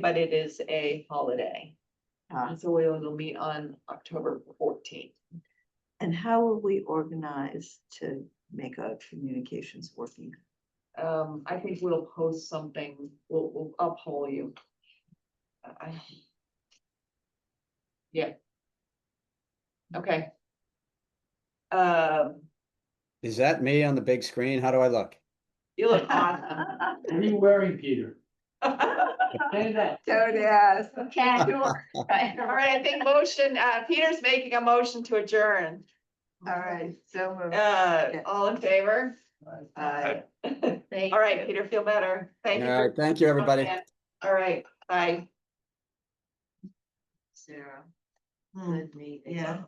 but it is a holiday. Uh, so we will meet on October fourteenth. And how will we organize to make our communications working? Um, I think we'll post something, we'll, we'll uphold you. I- I. Yeah. Okay. Um, Is that me on the big screen? How do I look? you look awesome. What are you wearing, Peter? All Say that. Don't ask. Okay. All right, I think motion, uh, Peter's making a motion to adjourn. All right, so moved. Uh, all in favor? Aye. All right, Peter, feel better. Thank you. All for- right, thank you, everybody. All right, bye. Sarah. Hmm. Good meeting. Yeah.